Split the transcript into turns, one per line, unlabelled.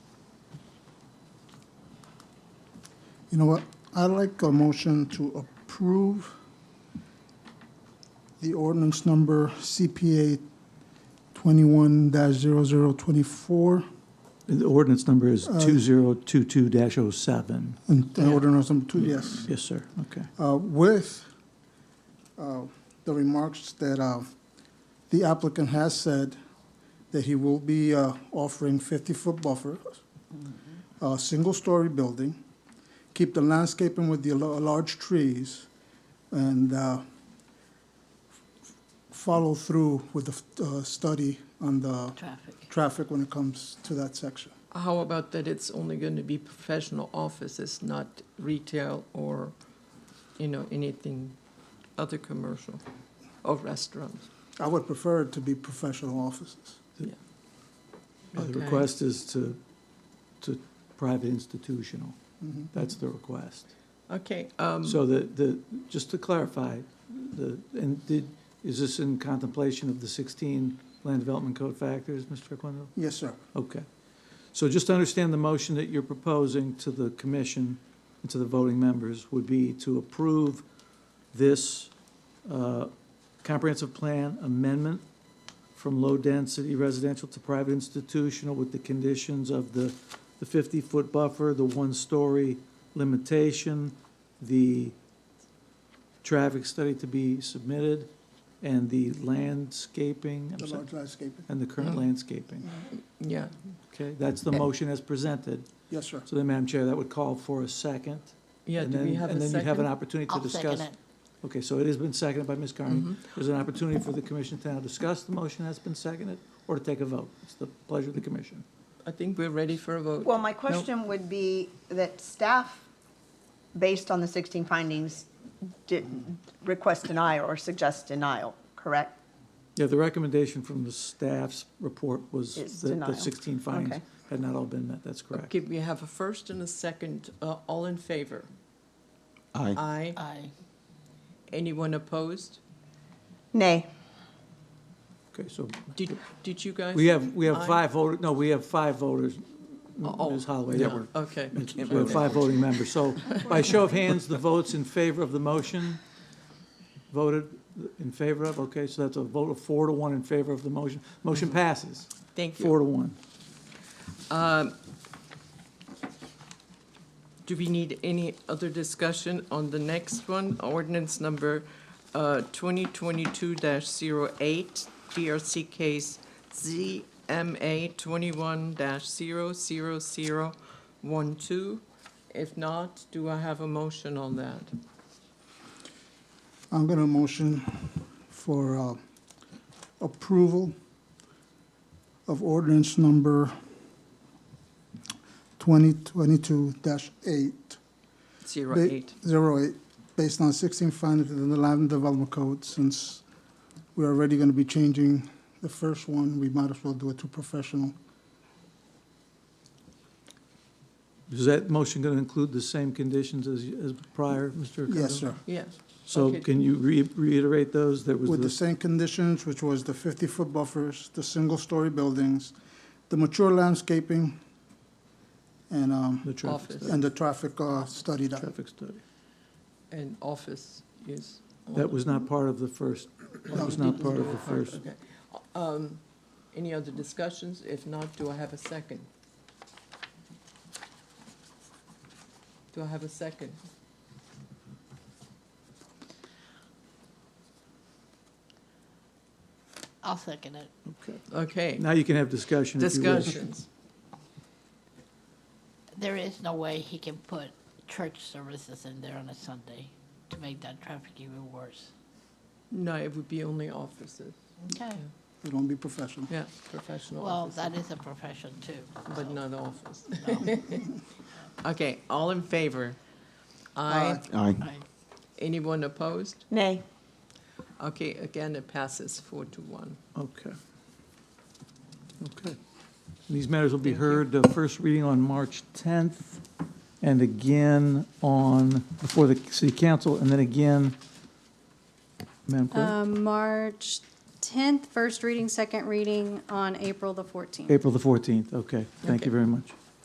You know what, I'd like a motion to approve the ordinance number CPA twenty-one 24
The ordinance number is 2022-07.
and the ordinance number two, yes,
Yes, sir. Okay.
uh, with, uh, the remarks that, uh, the applicant has said that he will be, uh, offering fifty-foot buffer, a single-story uh, building, keep the landscaping with the la- large trees, and, uh, follow through with the, uh, study on the
Traffic.
traffic when it comes to that section.
How about that it's only going to be professional offices, not retail or, you know, anything other commercial or restaurants?
I would prefer it to be professional offices.
Yeah.
The
Okay.
request is to, to private institutional.
Mm-hmm.
That's the request.
Okay, um,
So the, the, just to clarify, the, and did, is this in contemplation of the 16 land development code factors, Mr. Quindle?
Yes, sir.
Okay. So just to understand the motion that you're proposing to the commission and to the voting members would be to approve this uh, comprehensive plan amendment from low-density residential to private institutional with the conditions of the the 50-foot buffer, the one-story limitation, the traffic study to be submitted, and the landscaping,
The
I'm sorry,
large Uh-huh. landscaping.
and the current landscaping.
yeah,
Okay, that's the motion as presented.
Yes, sir.
So then, Madam Chair, that would call for a second.
yeah,
and
do we
then-
have a
And then you have an
second?
opportunity to
I'll
discuss.
second it.
Okay, so it has been seconded by Ms.
Mm-hmm.
Carney. There's an opportunity for the commission to now discuss the motion that's been seconded or to take a vote. It's the pleasure of the commission.
I think we're ready for a vote.
Well, my question would be that staff, based on the 16 findings, did request denial or suggest denial, correct?
Yeah, the recommendation from the staff's report was
It's
that the
denial.
16 findings
Okay.
had not all been met. That's correct.
Okay, we have a first and a second, uh, all in favor?
Aye.
Aye.
Aye.
Anyone opposed?
Nay.
Okay, so
Did, did you guys?
we have, we have
Aye.
five voters, no, we have five voters,
Oh,
Ms. Holloway, that
no,
were
Okay.
We have five voting members, so by show of hands, the votes in favor of the motion voted in favor of, okay, so that's a vote of four to one in favor of the motion. Motion passes,
Thank you.
four to one.
Do we need any other discussion on the next one? Ordinance number uh, 2022-08, DRC case ZMA 21-00012. If not, do I have a motion on that?
I'm going to motion for uh, approval of ordinance number 2022-8.
Zero
ba-
eight.
08, based on 16 findings in the Land Development Code, since we're already going to be changing the first one, we might as well do it to professional.
Is that motion going to include the same conditions as, as prior, Mr. Cudjoe?
Yes, sir.
Yes.
So
Okay.
can you re- reiterate those? There was
with the
the,
same conditions, which was the 50-foot buffers, the single-story buildings, the mature landscaping, and, um,
the traffic,
Office.
study-
and the traffic uh, study that,
traffic study.
And office is. on
That was not part of the first, that was not part of the first.
Um, Okay. Um, Any other discussions? If not, do I have a second? Do I have a second?
I'll second it.
Okay.
Okay,
Now you can have discussion if you wish.
discussions.
There is no way he can put church services in there on a Sunday to make that traffic even worse.
No, it would be only offices,
Okay.
it won't be professional.
yeah, professional
Well,
offices,
that is a profession too.
but not office. Okay, all in favor? Aye.
Aye.
Aye.
Anyone opposed?
Nay.
Okay, again, it passes four to one.
Okay. Okay. These matters will be
Thank you.
heard, uh, first reading on March 10th, and again on, before the city council, and then again, Madam Clerk,
Uh, March 10th, first reading, second reading on April the 14th.
April the 14th. Okay, thank
Okay.
you very much.